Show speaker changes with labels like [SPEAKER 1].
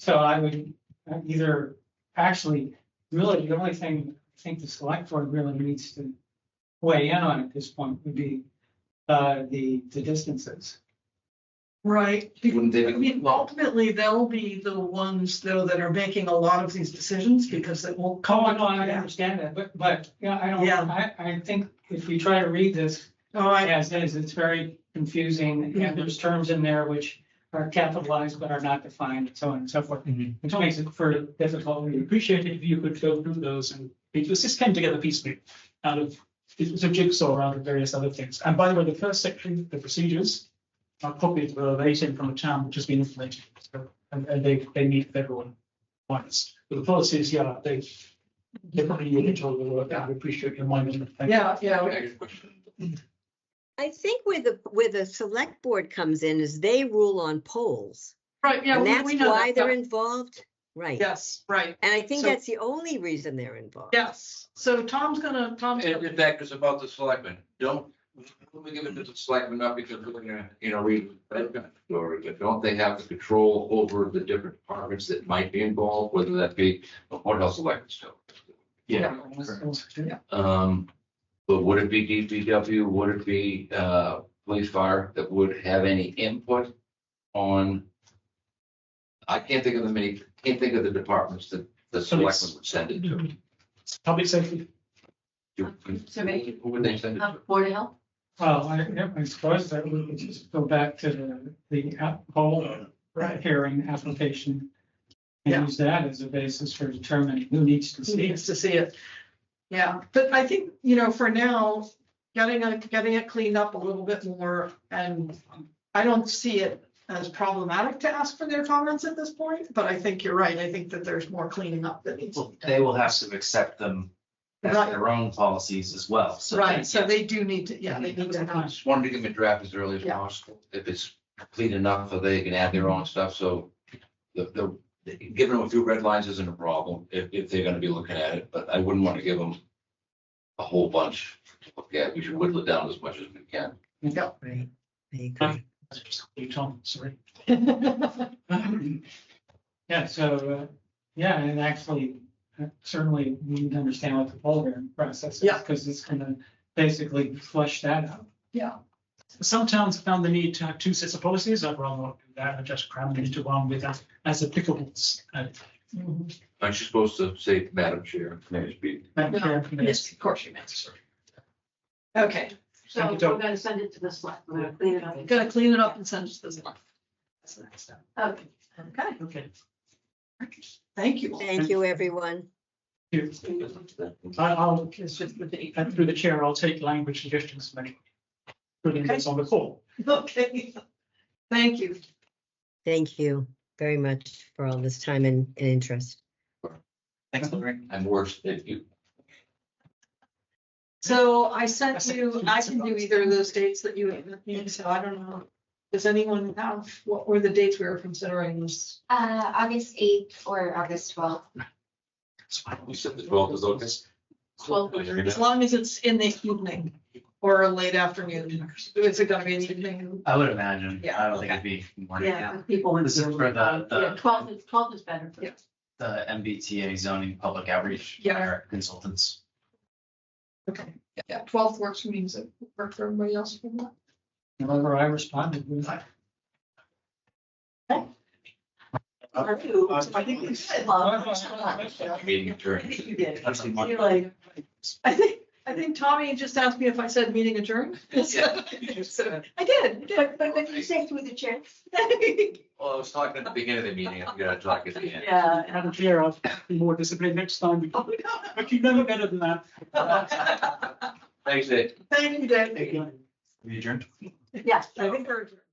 [SPEAKER 1] So I would uh, either, actually, really, the only thing I think the select board really needs to weigh in on at this point would be uh, the, the distances.
[SPEAKER 2] Right, because,
[SPEAKER 3] Wouldn't they
[SPEAKER 2] I
[SPEAKER 3] be-
[SPEAKER 2] mean, ultimately, they'll be the ones though that are making a lot of these decisions because it will.
[SPEAKER 1] Oh,
[SPEAKER 2] come
[SPEAKER 1] I know, I understand that, but, but, yeah, I don't,
[SPEAKER 2] Yeah.
[SPEAKER 1] I, I think if we try to read this
[SPEAKER 2] Oh, I,
[SPEAKER 1] as is, it's very confusing, and there's terms in there which are capitalized but are not defined, and so on and so forth,
[SPEAKER 4] Mhm.
[SPEAKER 1] which makes it for difficult.
[SPEAKER 4] We'd appreciate it if you could go through those and because this came together piecemeal out of, it was a jigsaw out of various other things. And by the way, the first section, the procedures, are copied verbatim from a town which has been inflated. So, And, and they, they meet with everyone once. But the policies, yeah, they, they probably need to all the work. I appreciate your mind on that.
[SPEAKER 2] yeah, yeah,
[SPEAKER 3] I got a question.
[SPEAKER 5] I think where the, where the select board comes in is they rule on polls.
[SPEAKER 2] right, yeah.
[SPEAKER 5] And
[SPEAKER 2] we-
[SPEAKER 5] that's
[SPEAKER 2] we know
[SPEAKER 5] why
[SPEAKER 2] that,
[SPEAKER 5] they're
[SPEAKER 2] yeah.
[SPEAKER 5] involved, right?
[SPEAKER 2] Yes, right,
[SPEAKER 5] And I think
[SPEAKER 2] So-
[SPEAKER 5] that's the only reason they're involved.
[SPEAKER 2] yes. So Tom's gonna, Tom's.
[SPEAKER 3] And in
[SPEAKER 2] gonna-
[SPEAKER 3] fact, it's about the selectmen. Don't, don't we give it to the selectmen, not because we're gonna, you know, we, or don't they have the control over the different departments that might be involved, whether that be, what else elected still? Yeah, um, but would it be DPW, would it be, uh, police fire that would have any input on? I can't think of the many, can't think of the departments that the selectmen would send it to.
[SPEAKER 4] Public safety,
[SPEAKER 3] Who would they send it to?
[SPEAKER 6] Board of Health?
[SPEAKER 1] Well, I, yeah, I suppose that we could just go back to the, the app- whole
[SPEAKER 2] Right.
[SPEAKER 1] hearing application.
[SPEAKER 2] Yeah.
[SPEAKER 1] And use that as a basis for determining who needs to
[SPEAKER 2] Who
[SPEAKER 1] see
[SPEAKER 2] needs
[SPEAKER 1] it.
[SPEAKER 2] to see it? Yeah, but I think, you know, for now, getting it, getting it cleaned up a little bit more and I don't see it as problematic to ask for their comments at this point, but I think you're right. I think that there's more cleaning up that needs. to
[SPEAKER 7] Well,
[SPEAKER 2] be done.
[SPEAKER 7] they will have to accept them as
[SPEAKER 2] Right.
[SPEAKER 7] their own policies as well, so.
[SPEAKER 2] Right, so they do need to, yeah,
[SPEAKER 3] Mm-hmm.
[SPEAKER 2] they need to have.
[SPEAKER 3] Just wanted to give them a draft as early as
[SPEAKER 2] Yeah.
[SPEAKER 3] possible, if it's complete enough, so they can add their own stuff, so. The, the, the- giving them a few red lines isn't a problem, if, if they're gonna be looking at it, but I wouldn't wanna give them. A whole bunch, to look at. we should whittle it down as much as we can.
[SPEAKER 5] Right, I agree.
[SPEAKER 4] agree. Tom, sorry.
[SPEAKER 1] Yeah, so, uh, yeah, and actually, uh, certainly we need to understand what the poll hearing process is.
[SPEAKER 2] Yeah.
[SPEAKER 1] Because it's gonna basically flush that out.
[SPEAKER 2] Yeah,
[SPEAKER 4] Some towns have found the need to have two sets of policies. I'd rather not do that and just cram it into one with that as applicable. uh,
[SPEAKER 2] Mm-hmm.
[SPEAKER 3] Aren't you supposed to say, Madam Chair, may I speak?
[SPEAKER 4] Madam
[SPEAKER 2] No,
[SPEAKER 4] Chair, yes.
[SPEAKER 2] yes, of course you may. Okay,
[SPEAKER 4] Thank
[SPEAKER 6] So
[SPEAKER 4] you,
[SPEAKER 6] we're
[SPEAKER 4] Tom.
[SPEAKER 6] gonna send it to the select, we're gonna clean it up.
[SPEAKER 2] gotta clean it up and send it to the. That's the next step.
[SPEAKER 6] Okay.
[SPEAKER 2] Okay,
[SPEAKER 4] Okay.
[SPEAKER 2] thank you.
[SPEAKER 5] Thank you, everyone.
[SPEAKER 4] Thank you. I- I'll,
[SPEAKER 2] It's just the date.
[SPEAKER 4] and through the chair, I'll take language suggestions from anyone. Putting this on the call.
[SPEAKER 2] Okay, thank you.
[SPEAKER 5] Thank you very much for all this time and, and interest.
[SPEAKER 7] Thanks, Lorraine.
[SPEAKER 3] I'm worse than you.
[SPEAKER 2] So I sent you, I can do either of those dates that you, you so I don't know. Does anyone have, what were the dates we were considering this?
[SPEAKER 6] Uh, August eighth or August twelfth.
[SPEAKER 3] We said the twelfth is August.
[SPEAKER 2] Well,
[SPEAKER 3] Are you
[SPEAKER 2] As
[SPEAKER 3] gonna-
[SPEAKER 2] long as it's in the evening or late afternoon, is it gonna be an evening?
[SPEAKER 7] I would imagine.
[SPEAKER 2] Yeah,
[SPEAKER 7] I don't think it'd be morning.
[SPEAKER 6] Yeah, and people. would-
[SPEAKER 7] This is for the- the-
[SPEAKER 4] uh,
[SPEAKER 6] Yeah, Twelve is, twelve is better. for-
[SPEAKER 2] Yeah.
[SPEAKER 7] The MBTA zoning public outreach.
[SPEAKER 2] Yeah.
[SPEAKER 7] our Consultants.
[SPEAKER 2] Okay, yeah, twelfth works for me, does it work for everybody else? for that?
[SPEAKER 1] However, I responded with.
[SPEAKER 6] Or two.
[SPEAKER 7] I
[SPEAKER 2] Uh,
[SPEAKER 7] think we
[SPEAKER 2] Oh,
[SPEAKER 6] Well,
[SPEAKER 3] Meeting adjourned.
[SPEAKER 6] You did.
[SPEAKER 7] That's a month.
[SPEAKER 6] You're like,
[SPEAKER 2] I think, I think Tommy just asked me if I said meeting adjourned.
[SPEAKER 3] Yeah.
[SPEAKER 2] So, I did,
[SPEAKER 6] but, but what did you say through the chair?
[SPEAKER 2] I did.
[SPEAKER 3] Well, I was talking at the beginning of the meeting, I'm gonna talk at the end.
[SPEAKER 2] Uh,
[SPEAKER 6] Yeah. and
[SPEAKER 4] Madam Chair, I'll be more disciplined next time.
[SPEAKER 2] Oh,
[SPEAKER 4] But you never better than that.
[SPEAKER 2] no.
[SPEAKER 3] Thanks, Ed.
[SPEAKER 2] Thank you, Dave.
[SPEAKER 7] We adjourned.
[SPEAKER 6] Yes.
[SPEAKER 2] I think we're.